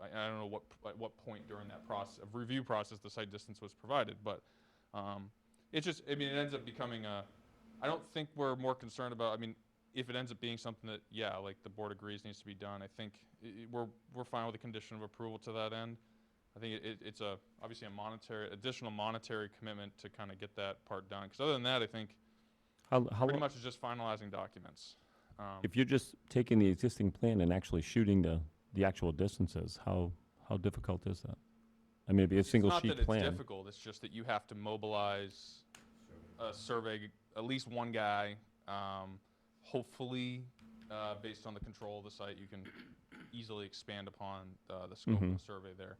I, I don't know what, at what point during that process, of review process, the site distance was provided, but, um, it's just, I mean, it ends up becoming a, I don't think we're more concerned about, I mean, if it ends up being something that, yeah, like the board agrees needs to be done, I think i- i- we're, we're fine with a condition of approval to that end. I think it- it, it's a, obviously a monetary, additional monetary commitment to kind of get that part done, because other than that, I think How, how, pretty lo- much it's just finalizing documents. Um, if you're just taking the existing plan and actually shooting the, the actual distances, how, how difficult is that? I mean, it'd be a it's single not sheet that it's plan. difficult, it's just that you have to mobilize a survey, g- at least one guy. Um, hopefully, uh, based on the control of the site, you can easily expand upon uh, the scope of Mhm. the survey there.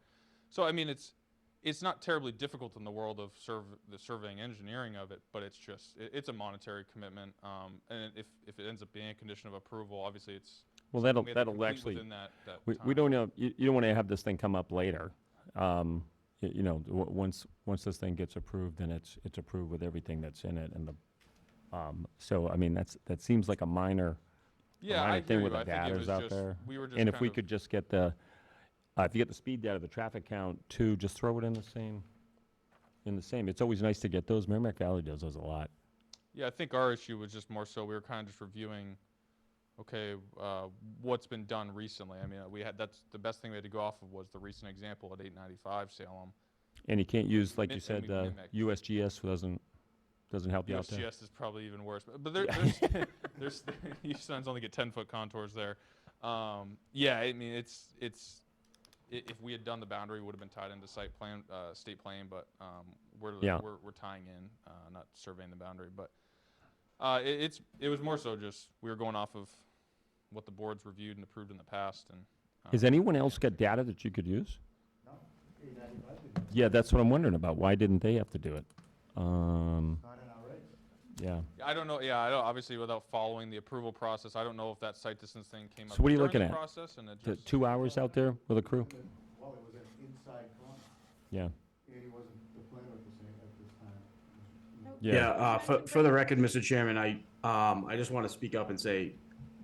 So, I mean, it's it's not terribly difficult in the world of serv the surveying engineering of it, but it's just it, it's a monetary commitment. Um, and if if it ends up being a condition of approval, obviously it's Well, that'll, we have to that'll complete actually, within that, that we, time. we don't know, you, you don't want to have this thing come up later. Um, y- you know, w- once, once this thing gets approved, then it's, it's approved with everything that's in it and the, um, so, I mean, that's, that seems like a minor, a Yeah, I minor hear thing you. with the I think it was data's out just, there. we were just And if kind we of- could just get the, uh, if you get the speed data, the traffic count too, just throw it in the same, in the same. It's always nice to get those. Merrimack Valley does those a lot. Yeah, I think our issue was just more so we were kind of just reviewing, okay, uh, what's been done recently. I mean, uh, we had, that's the best thing we had to go off of was the recent example at 895 Salem. And you can't use, like Mi- you and said, we uh, mimic. USGS doesn't, doesn't help you out there. USGS is probably even worse, but, but there, Yeah. there's, there's, you sometimes only get 10 foot contours there. Um, yeah, I mean, it's, it's, i- if we had done the boundary, would have been tied into site plan, uh, state plan, but, um, we're, Yeah. we're, we're tying in, uh, not surveying the boundary, but, uh, it, it's, it was more so just, we were going off of what the board's reviewed and approved in the past and. Has um, anyone else got data that you could use? Yeah, that's what I'm wondering about. Why didn't they have to do it? Um, yeah. I don't know, yeah, I don't, obviously without following the approval process, I don't know if that site distance thing came up. So what are you during looking the at? Process and it T- just. Two hours out there with a crew? Well, it was an inside corner, Yeah. and he wasn't the planner at the same, at this time. Yeah, uh, for, for the record, Mr. Chairman, I, um, I just want to speak up and say,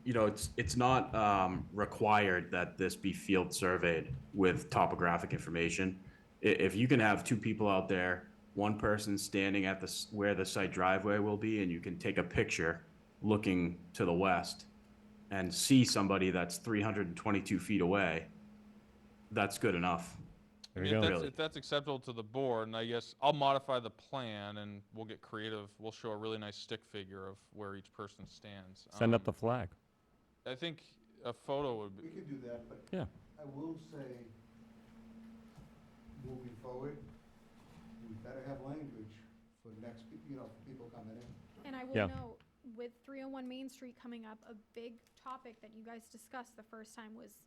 you know, it's, it's not, um, required that this be field surveyed with topographic information. I- if you can have two people out there, one person standing at the, s- where the site driveway will be, and you can take a picture looking to the west and see somebody that's three hundred and twenty-two feet away, that's good enough. There I you mean, if go. that's, Really. if that's acceptable to the board, and I guess I'll modify the plan and we'll get creative. We'll show a really nice stick figure of where each person stands. Send up Um, the flag. I think a photo would be. We can do that, but Yeah. I will say, moving forward, we better have language for next, pe- you know, for people coming in. And I will Yeah. know, with 301 Main Street coming up, a big topic that you guys discussed the first time was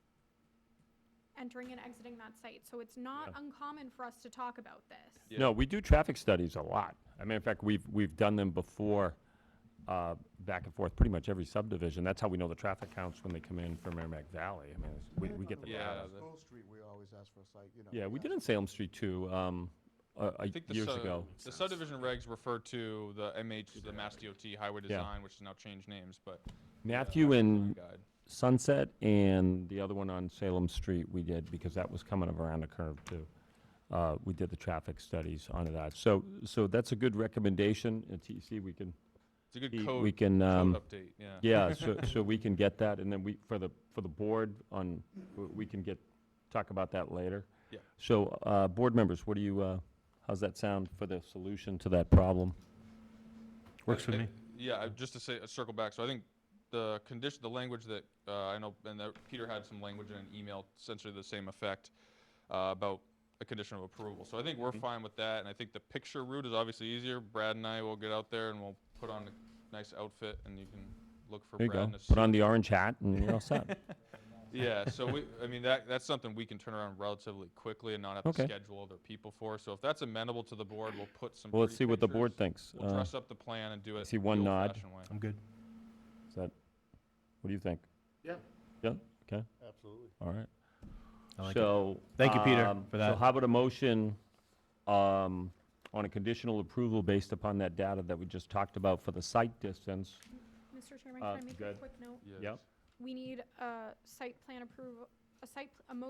entering and exiting that site. So it's not uncommon for us to talk about this. Yeah. No, we do traffic studies a lot. I mean, in fact, we've, we've done them before, uh, back and forth, pretty much every subdivision. That's how we know the traffic counts when they come in from Merrimack Valley. I mean, it's- we, we get the Yeah, data. the- School Street, we always ask for a site, you know. Yeah, we ask- did in Salem Street too, um, uh, uh, I think the years sub- ago. The subdivision regs refer to the MH, the Mass DOT Highway Yeah. Design, which has now changed names, but. uh, Matthew Highway and Design Guide. Sunset and the other one on Salem Street we did, because that was coming around the curve too. Uh, we did the traffic studies on that. So, so that's a good recommendation. At TEC, we can, It's a good code, we can, um, code update, yeah. Yeah, so, so we can get that, and then we, for the, for the board on, w- we can get, talk about that later. Yeah. So, uh, board members, what do you, uh, how's that sound for the solution to that problem? Works for me. Yeah, I- just to say, uh, circle back, so I think the condition, the language that, uh, I know, and that Peter had some language in an email, essentially the same effect, uh, about a condition of approval, so I think Mm-hmm. we're fine with that, and I think the picture route is obviously easier, Brad and I will get out there and we'll put on a nice outfit and you can look for There you Brad go, in a suit. put on the orange hat and you're all set. Yeah, so we, I mean, that, that's something we can turn around relatively quickly and not have to Okay. schedule other people for, so if that's amenable to the board, we'll put some Well, let's pretty see what the board pictures. thinks. We'll Uh, dress up the plan and do it see the one nod. old-fashioned way. I'm good. Is that, what do you think? Yeah. Yeah, okay, Absolutely. all right. I like it. So. Thank you, Peter, um, for that. So how about a motion um, on a conditional approval based upon that data that we just talked about for the site distance? Mr. Chairman, Uh, can I make a good. quick note? Yeah, Yep. We need a site plan approval, a site, pl- a motion